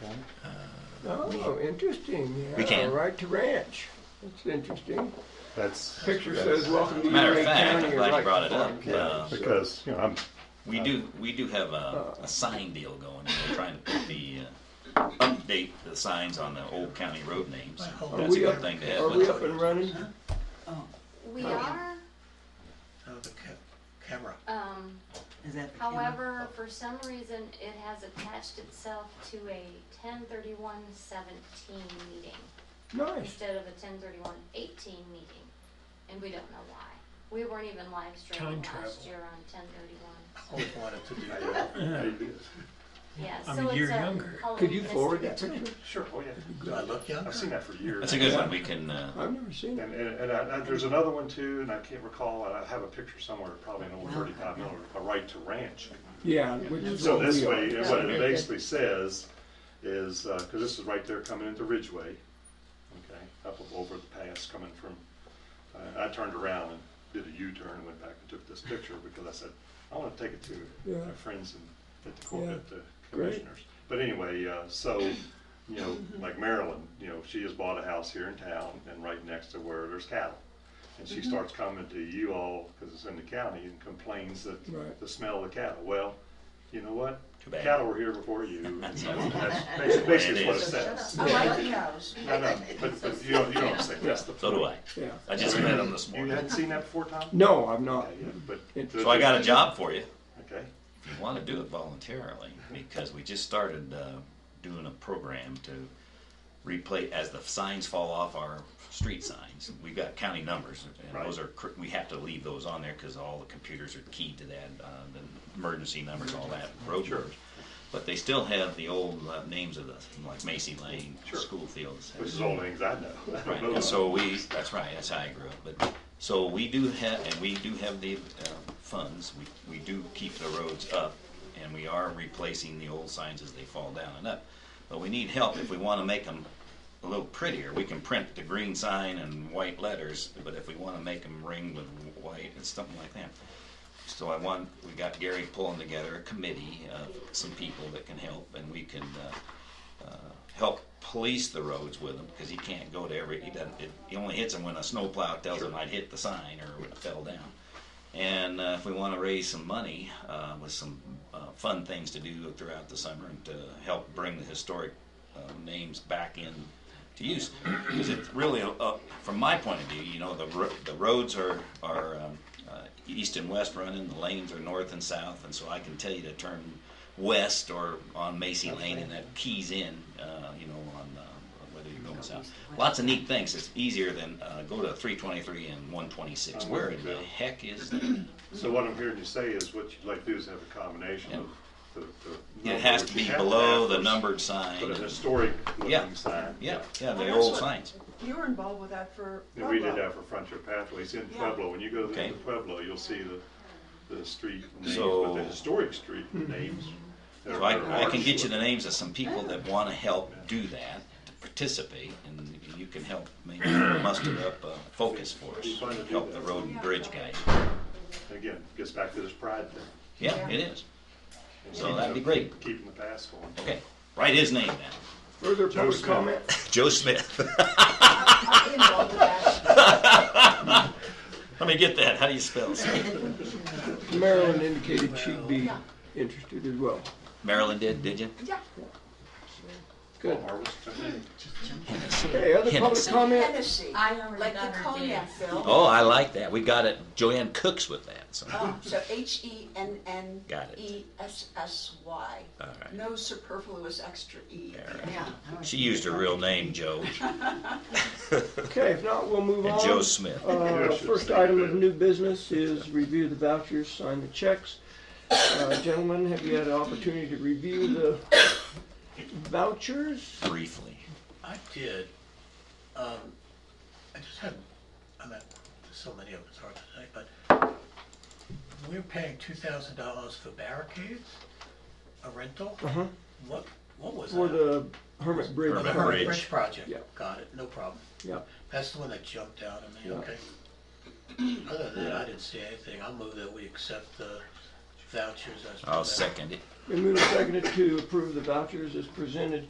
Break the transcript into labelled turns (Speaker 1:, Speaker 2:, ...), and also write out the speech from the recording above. Speaker 1: one.
Speaker 2: Oh, interesting.
Speaker 3: We
Speaker 2: Yeah,
Speaker 3: can.
Speaker 2: Right to ranch. That's interesting.
Speaker 1: That's.
Speaker 2: Picture
Speaker 1: that's-
Speaker 2: says, welcome to
Speaker 3: Matter of
Speaker 2: Uray
Speaker 3: fact, I'm
Speaker 2: County.
Speaker 3: glad you
Speaker 2: right
Speaker 3: brought it
Speaker 2: to
Speaker 3: up.
Speaker 2: farm.
Speaker 1: Yeah,
Speaker 3: Uh,
Speaker 1: because, you know, I'm,
Speaker 3: We do, we do have a, a sign deal going, and we're trying to put the, uh, update the signs on the old county road names.
Speaker 2: Uh, Are
Speaker 3: That's
Speaker 2: we
Speaker 3: a good
Speaker 2: up-
Speaker 3: thing to
Speaker 2: Are we up
Speaker 3: have.
Speaker 2: and running?
Speaker 4: We are,
Speaker 5: Oh, the ca- camera.
Speaker 4: um,
Speaker 6: Is that the camera?
Speaker 4: however, for some reason, it has attached itself to a ten thirty-one seventeen meeting
Speaker 2: Nice.
Speaker 4: instead of a ten thirty-one eighteen meeting, and we don't know why. We weren't even live streaming
Speaker 7: Time
Speaker 4: last
Speaker 7: travel.
Speaker 4: year on ten thirty-one.
Speaker 5: Always wanted to do that.
Speaker 1: I
Speaker 7: Yeah.
Speaker 1: did.
Speaker 4: Yeah,
Speaker 7: I'm
Speaker 4: so
Speaker 7: a
Speaker 4: it's
Speaker 7: year
Speaker 4: a
Speaker 7: younger.
Speaker 4: Halloween
Speaker 2: Could you
Speaker 4: festival.
Speaker 2: forward that picture?
Speaker 1: Sure, oh yeah.
Speaker 5: Do I look younger?
Speaker 1: I've seen that for years.
Speaker 3: That's a good one, we can, uh,
Speaker 2: I've never seen it.
Speaker 1: And, and, and I, I- there's another one too, and I can't recall, I have a picture somewhere, probably an old thirty-five miller, a right to ranch.
Speaker 2: Yeah, which is
Speaker 1: So
Speaker 2: what
Speaker 1: this
Speaker 2: we
Speaker 1: way,
Speaker 2: are.
Speaker 1: and what it basically says is, uh 'cause cause this is right there coming into Ridgeway, okay, up over the pass coming from, I, I turned around and did a U-turn and went back and took this picture because I said, I wanna take it to
Speaker 2: Yeah.
Speaker 1: my friends and at the court,
Speaker 2: Yeah.
Speaker 1: at the
Speaker 2: Great. Mm-hmm.
Speaker 1: commissioners. But anyway, uh, so, you know, like Marilyn, you know, she has bought a house here in town and right next to where there's cattle. And she starts coming to you all, cause it's in the county, and complains that
Speaker 2: Right.
Speaker 1: the smell of the cattle. Well, you know what?
Speaker 3: Too bad.
Speaker 1: Cattle were here before you.
Speaker 3: That's
Speaker 1: You know,
Speaker 3: all.
Speaker 1: that's basi- Basically, what it
Speaker 6: So shut
Speaker 1: says.
Speaker 6: up. I like
Speaker 1: No, no, but, but you don't, you don't say that's the.
Speaker 3: so do I.
Speaker 1: point.
Speaker 2: Yeah.
Speaker 3: I just met him this
Speaker 1: You
Speaker 3: morning.
Speaker 1: hadn't seen that before, Tom?
Speaker 2: No, I'm not.
Speaker 1: Okay, yeah, But.
Speaker 3: So I got a job for you.
Speaker 1: Okay,
Speaker 3: If you want to do it voluntarily, because we just started uh, doing a program to replace, as the signs fall off our street signs, we've got county numbers, and those
Speaker 1: Right.
Speaker 3: are, cr- we have to leave those on there, because all the computers are keyed to that, uh, the emergency numbers, all that, road numbers. But they still have the old uh, names of the, like Macy Lane,
Speaker 1: Sure.
Speaker 3: school fields.
Speaker 1: which is all things I know. uh, I don't
Speaker 3: Right,
Speaker 1: know.
Speaker 3: and so we, that's right, that's how I grew up, but, so we do have, and we do have the, uh, funds, we, we do keep the roads up, and we are replacing the old signs as they fall down and up, but we need help if we wanna make them a little prettier, we can print the green sign and white letters, but if we wanna make them ring with white and something like that. So I want, we got Gary pulling together a committee of some people that can help, and we can, uh, help police the roads with them because he can't go to every he doesn't it, he only hits them when a snowplow tells him I'd hit the sign or when it fell down. And uh, if we want to raise some money uh, with some uh, fun things to do throughout the summer and to help bring the historic uh, names back in to use, because it's really uh, from my point of view, you know, the ro- the roads are are um, uh, east and west running, the lanes are north and south, and so I can tell you to turn west or on Macy Lane, and that keys in, uh, you know, on uh, whether you're going south. Lots of neat things. It's easier than uh, go to 323 and
Speaker 1: Uh,
Speaker 3: 126. Where in the heck is that?
Speaker 1: So what I'm hearing you say is what you'd like to do is have a combination of the. the
Speaker 3: It has to
Speaker 1: number, which
Speaker 3: be
Speaker 1: you have
Speaker 3: below
Speaker 1: have
Speaker 3: the
Speaker 1: for-
Speaker 3: numbered sign.
Speaker 1: For the historic
Speaker 3: Yeah.
Speaker 1: looking sign.
Speaker 3: Yeah, yeah, the
Speaker 8: Well,
Speaker 3: old
Speaker 8: that's what-
Speaker 3: signs.
Speaker 8: You were involved with that for
Speaker 1: And we did
Speaker 8: Pueblo.
Speaker 1: that for Frontier Pathways in
Speaker 8: Yeah.
Speaker 1: Pueblo. When you go to
Speaker 3: Okay.
Speaker 1: the Pueblo, you'll see the, the street names, but
Speaker 3: So-
Speaker 1: the historic street
Speaker 8: Hmm.
Speaker 1: names. that
Speaker 3: So
Speaker 1: are- that
Speaker 3: I, I
Speaker 1: are
Speaker 3: can get you the
Speaker 1: historic.
Speaker 3: names of some people that want to help do that, to participate, and you can help maybe muster up a focus for us, help the road and bridge guys.
Speaker 1: Again, gets back to this pride thing.
Speaker 3: Yeah, it is. So that'd be
Speaker 1: Keep-
Speaker 3: great.
Speaker 1: Keeping the past going.
Speaker 3: Okay, write his name down.
Speaker 2: Further
Speaker 1: Joe
Speaker 2: public
Speaker 1: Smith.
Speaker 2: comment?
Speaker 3: Joe Smith.
Speaker 6: I'll be involved with that.
Speaker 3: Let me get that. How do you spell? Smith?
Speaker 2: Marilyn indicated she'd be interested as well.
Speaker 3: Marilyn did, did you?
Speaker 2: Good.
Speaker 1: Harvest,
Speaker 2: Okay, other public
Speaker 3: Hennessy.
Speaker 2: comment?
Speaker 8: Tennessee.
Speaker 6: I
Speaker 8: Like
Speaker 6: like
Speaker 8: the
Speaker 6: the
Speaker 8: cognac, Phil.
Speaker 3: Oh, I like that. We got it. Joanne Cooks with that. So.
Speaker 8: Oh, So H E N N E S S Y.
Speaker 3: All right.
Speaker 8: No superfluous extra E.
Speaker 3: All right.
Speaker 6: Yeah.
Speaker 3: She used her real name, Joe,
Speaker 2: Okay, if not, we'll move
Speaker 3: and Joe
Speaker 2: on.
Speaker 3: Smith.
Speaker 2: Uh, First item of new business is review the vouchers, sign the checks. Uh, Gentlemen, have you had an opportunity to review the vouchers?
Speaker 3: Briefly.
Speaker 5: I did. Um, I just had, I mean, there's so many of them, it's hard to say, but we're paying two thousand dollars for barricades, a rental. What, what was that?
Speaker 2: Uh-huh. For the Hermit Bridge.
Speaker 5: Oh, the
Speaker 3: Hermit
Speaker 2: project.
Speaker 3: Bridge.
Speaker 5: Bridge project.
Speaker 2: Yeah.
Speaker 5: Got it, no problem.
Speaker 2: Yeah,
Speaker 5: That's the one that jumped out at me,
Speaker 2: Yeah.
Speaker 5: okay. Other than that, I didn't see anything. I'll move that we accept the vouchers as.
Speaker 3: I'll
Speaker 5: presented.
Speaker 3: second it.
Speaker 2: been moved and seconded to approve the vouchers as presented.